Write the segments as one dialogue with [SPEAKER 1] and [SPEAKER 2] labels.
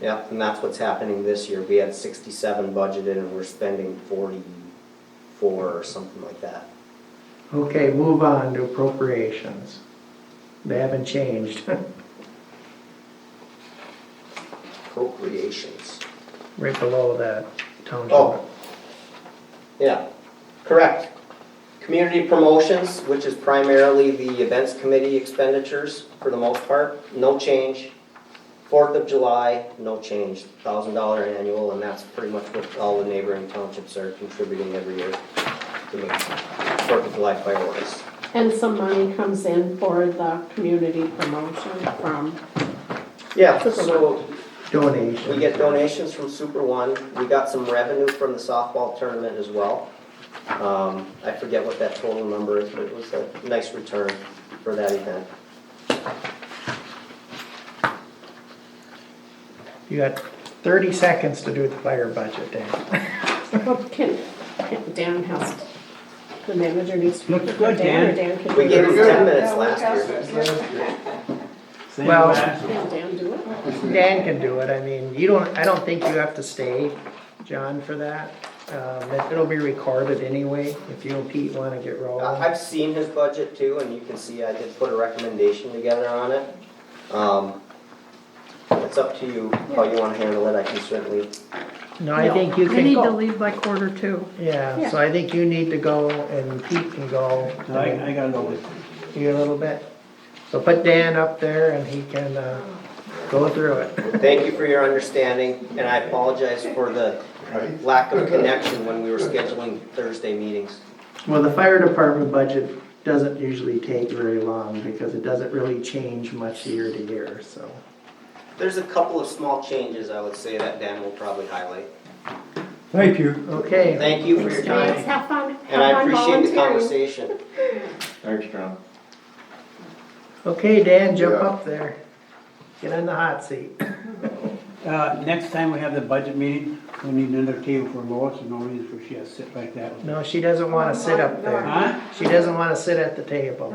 [SPEAKER 1] Yep, and that's what's happening this year. We had sixty-seven budgeted and we're spending forty-four or something like that.
[SPEAKER 2] Okay, move on to appropriations. They haven't changed.
[SPEAKER 1] Appropriations.
[SPEAKER 2] Right below that township.
[SPEAKER 1] Oh. Yeah, correct. Community promotions, which is primarily the events committee expenditures for the most part, no change. Fourth of July, no change, thousand dollar annual, and that's pretty much what all the neighboring townships are contributing every year to the Fourth of July fireworks.
[SPEAKER 3] And some money comes in for the community promotion from,
[SPEAKER 1] Yeah, so
[SPEAKER 2] Donation.
[SPEAKER 1] We get donations from Super One, we got some revenue from the softball tournament as well. Um, I forget what that total number is, but it was a nice return for that event.
[SPEAKER 2] You got thirty seconds to do the fire budget, Dan.
[SPEAKER 3] well, can, can- Dan has, to- the manager needs to.
[SPEAKER 4] Looks good,
[SPEAKER 3] Dan.
[SPEAKER 4] Dan.
[SPEAKER 3] or Dan can
[SPEAKER 1] We
[SPEAKER 3] do
[SPEAKER 1] gave him
[SPEAKER 3] it.
[SPEAKER 1] ten minutes last year.
[SPEAKER 4] Same
[SPEAKER 2] Well-
[SPEAKER 4] last-
[SPEAKER 3] Can Dan do it?
[SPEAKER 2] Dan can do it, I mean, you don't, I don't think you have to stay, John, for that. Um, it- It'll be recorded anyway, if you and Pete wanna get
[SPEAKER 1] I-
[SPEAKER 2] rolling.
[SPEAKER 1] I've seen his budget too, and you can see I did put a recommendation together on it. Um, It's up to you how you wanna handle it, I can certainly,
[SPEAKER 2] No, I think you
[SPEAKER 5] We need
[SPEAKER 2] can,
[SPEAKER 5] to leave by quarter two.
[SPEAKER 2] yeah, so I think you need to go and Pete can go.
[SPEAKER 4] I, I got a little,
[SPEAKER 2] You a little bit. So put Dan up there and he can, uh, go through it.
[SPEAKER 1] thank you for your understanding, and I apologize for the lack of connection when we were scheduling Thursday meetings.
[SPEAKER 2] Well, the fire department budget doesn't usually take very long because it doesn't really change much year to year, so.
[SPEAKER 1] There's a couple of small changes, I would say, that Dan will probably highlight.
[SPEAKER 4] thank you.
[SPEAKER 2] Okay,
[SPEAKER 1] Thank you for your
[SPEAKER 3] Thanks,
[SPEAKER 1] time,
[SPEAKER 3] have fun,
[SPEAKER 1] and I
[SPEAKER 3] have fun
[SPEAKER 1] appreciate the
[SPEAKER 3] volunteering.
[SPEAKER 1] conversation.
[SPEAKER 6] Thanks, John.
[SPEAKER 2] okay, Dan, jump
[SPEAKER 6] Yeah.
[SPEAKER 2] up there. Get on the hot seat.
[SPEAKER 4] Uh, next time we have the budget meeting, we need another table for Lois, and no reason for she has to sit like that.
[SPEAKER 2] No, she doesn't wanna sit up there.
[SPEAKER 4] Huh?
[SPEAKER 2] She doesn't wanna sit at the table.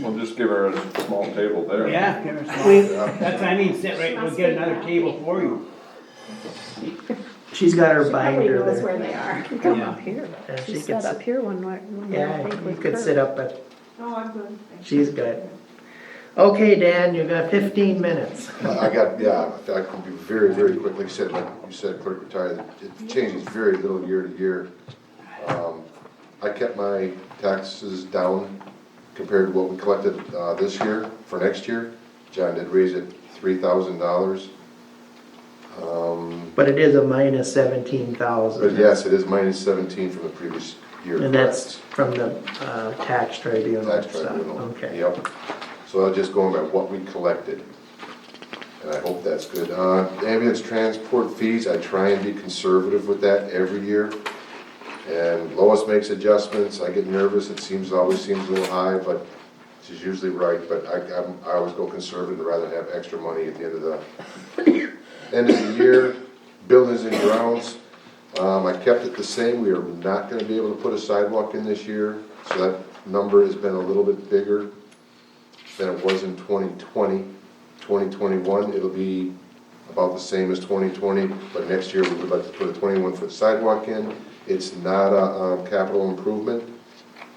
[SPEAKER 6] We'll just give her a small table there.
[SPEAKER 4] Yeah, give her
[SPEAKER 2] We-
[SPEAKER 4] some. That's what I mean, sit right, we'll get another table for you.
[SPEAKER 2] She's got her
[SPEAKER 3] Everybody
[SPEAKER 2] binder
[SPEAKER 3] knows
[SPEAKER 2] there.
[SPEAKER 3] where they are.
[SPEAKER 5] You come
[SPEAKER 4] Yeah.
[SPEAKER 5] up here.
[SPEAKER 2] Yeah, she
[SPEAKER 5] She
[SPEAKER 2] could
[SPEAKER 5] sat up
[SPEAKER 2] sit-
[SPEAKER 5] here one night. one night, I
[SPEAKER 2] Yeah,
[SPEAKER 5] think,
[SPEAKER 2] you
[SPEAKER 5] with
[SPEAKER 2] could
[SPEAKER 5] Kurt.
[SPEAKER 2] sit up, but. She's good. Okay, Dan, you've got fifteen minutes.
[SPEAKER 7] I got, yeah, I could be very, very quick, like you said, like you said, clerk retired, it changes very little year to year. Um, I kept my taxes down compared to what we collected, uh, this year for next year. John did raise it three thousand dollars. Um,
[SPEAKER 2] But it is a minus seventeen thousand.
[SPEAKER 7] but yes, it is minus seventeen from the previous year.
[SPEAKER 2] And that's
[SPEAKER 7] correct.
[SPEAKER 2] from the uh, tax tribunal
[SPEAKER 7] Tax
[SPEAKER 2] stuff,
[SPEAKER 7] tribunal.
[SPEAKER 2] okay.
[SPEAKER 7] Yep, so I'm just going by what we collected, and I hope that's good. Uh, ambulance transport fees, I try and be conservative with that every year. And Lois makes adjustments, I get nervous, it seems, always seems a little high, but she's usually right, but I, I'm- I always go conservative, rather have extra money at the end of the, end of the year. Buildings and grounds, um, I kept it the same, we are not gonna be able to put a sidewalk in this year, so that number has been a little bit bigger than it was in 2020. 2021, it'll be about the same as 2020, but next year we would like to put a 21-foot sidewalk in. It's not a, uh capital improvement,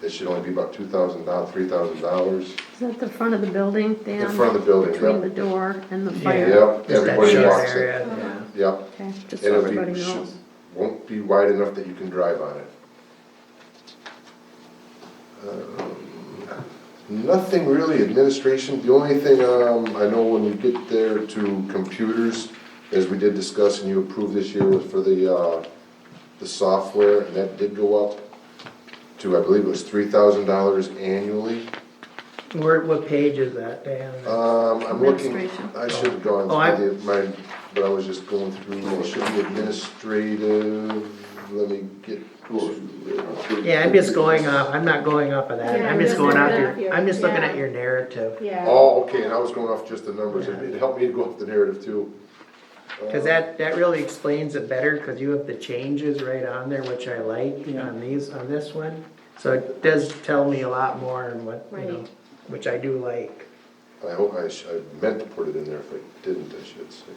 [SPEAKER 7] it should only be about $2,000, $3,000
[SPEAKER 5] Is that the front of the building, Dan?
[SPEAKER 7] in front of the building,
[SPEAKER 5] Between the
[SPEAKER 7] yep.
[SPEAKER 5] door and the fire?
[SPEAKER 7] Yep,
[SPEAKER 2] Just that
[SPEAKER 7] everybody
[SPEAKER 2] short
[SPEAKER 7] walks it,
[SPEAKER 2] area, yeah.
[SPEAKER 7] yep.
[SPEAKER 5] Okay, just
[SPEAKER 7] And
[SPEAKER 5] so
[SPEAKER 7] it'll be-
[SPEAKER 5] everybody
[SPEAKER 7] should-
[SPEAKER 5] knows.
[SPEAKER 7] Won't be wide enough that you can drive on it. Um, Nothing really administration, the only thing, um, I know when you get there to computers, as we did discuss and you approved this year was for the, uh, the software, and that did go up to, I believe it was three thousand dollars annually.
[SPEAKER 2] Where, what page is that, Dan?
[SPEAKER 7] Um, I'm looking,
[SPEAKER 5] Administration.
[SPEAKER 7] I should have gone
[SPEAKER 2] Oh, I-
[SPEAKER 7] through the, my, but I was just going through, well, it should be administrative, let me get.
[SPEAKER 2] Yeah, I'm just going off, I'm not going off of that,
[SPEAKER 3] Yeah,
[SPEAKER 2] I'm just going off
[SPEAKER 3] looking at
[SPEAKER 2] your,
[SPEAKER 3] your-
[SPEAKER 2] I'm just looking
[SPEAKER 3] yeah.
[SPEAKER 2] at your narrative.
[SPEAKER 3] Yeah,
[SPEAKER 7] Oh, okay, and I was going off just the numbers, it it helped me to go off the narrative too.
[SPEAKER 2] Cause that, that really explains it better, cause you have the changes right on there, which I like
[SPEAKER 4] Yeah.
[SPEAKER 2] on these, on this one. So it does tell me a lot more and what, you know,
[SPEAKER 3] Right.
[SPEAKER 2] which I do like.
[SPEAKER 7] I hope I, sh- I meant to put it in there, if I didn't, I should say.